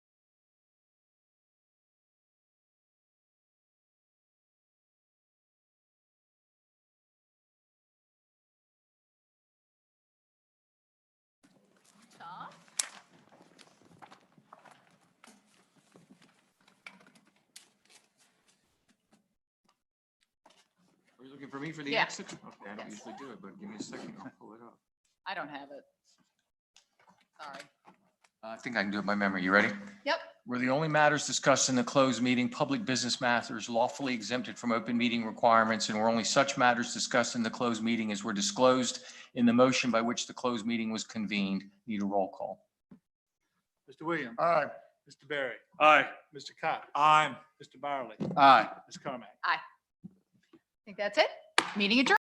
Looking for me for the Yeah. exit? Okay, I don't Yes. usually do it, but give me a second, I'll pull it up. I don't have it. Sorry. Uh, I think I can do it by memory. You ready? Yep. Were the only matters discussed in the closed meeting, public business matters lawfully exempted from open meeting requirements, and were only such matters discussed in the closed meeting as were disclosed in the motion by which the closed meeting was convened. Need a roll call. Mr. Williams. Aye. Mr. Barry. Aye. Mr. Cox. Aye. Mr. Byerly. Aye. Ms. Carmack. I think that's it. Meeting adjourned.